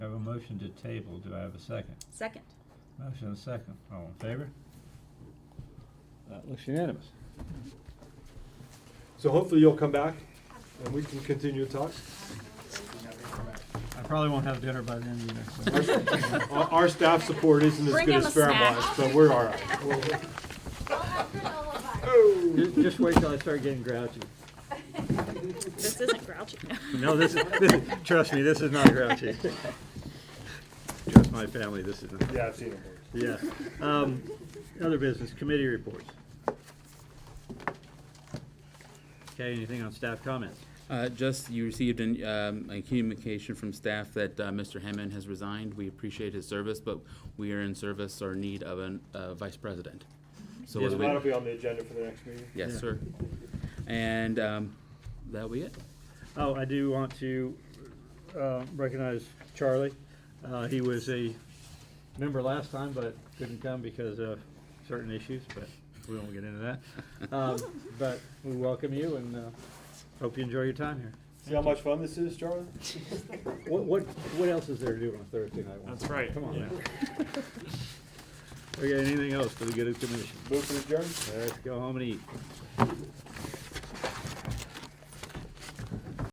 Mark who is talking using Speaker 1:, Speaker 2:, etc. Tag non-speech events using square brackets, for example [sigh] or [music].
Speaker 1: motion to table, do I have a second?
Speaker 2: Second.
Speaker 1: Motion and second, all in favor? That looks unanimous.
Speaker 3: So hopefully you'll come back and we can continue to talk.
Speaker 1: I probably won't have dinner by then
Speaker 3: Our,
Speaker 1: either.
Speaker 3: our- our staff support isn't as
Speaker 2: Bring
Speaker 3: good
Speaker 2: him
Speaker 3: as
Speaker 2: a snack.
Speaker 3: Fairmont's, so we're all right.
Speaker 1: Just, just wait till I start getting grouchy.
Speaker 2: This isn't grouchy.
Speaker 1: No, this is, this is, trust me, this is not grouchy. Trust my family, this is not.
Speaker 3: Yeah, I've seen it.
Speaker 1: Yeah. Um, Other business, committee reports. Okay, anything on staff comments?
Speaker 4: Uh, Just, you received an, um, a communication from staff that uh, Mr. Hammond has resigned. We appreciate his service, but we are in service or need of an- a vice president. So
Speaker 1: Yes,
Speaker 4: whether we-
Speaker 3: That'll be on the agenda for the next meeting.
Speaker 4: Yes,
Speaker 1: Yeah.
Speaker 4: sir. And um, that'll be it.
Speaker 1: Oh, I do want to uh, recognize Charlie. Uh, He was a member last time, but couldn't come because of certain issues, but we won't get into that. Um, But we welcome you and uh, hope you enjoy your time here.
Speaker 3: See how much fun this is, Charlie?
Speaker 1: What, what, what else is there to do on Thursday night? That's right. Come on now. [laughs] Okay, anything else for the good of the commission?
Speaker 3: Move for adjourn?
Speaker 1: Let's go home and eat.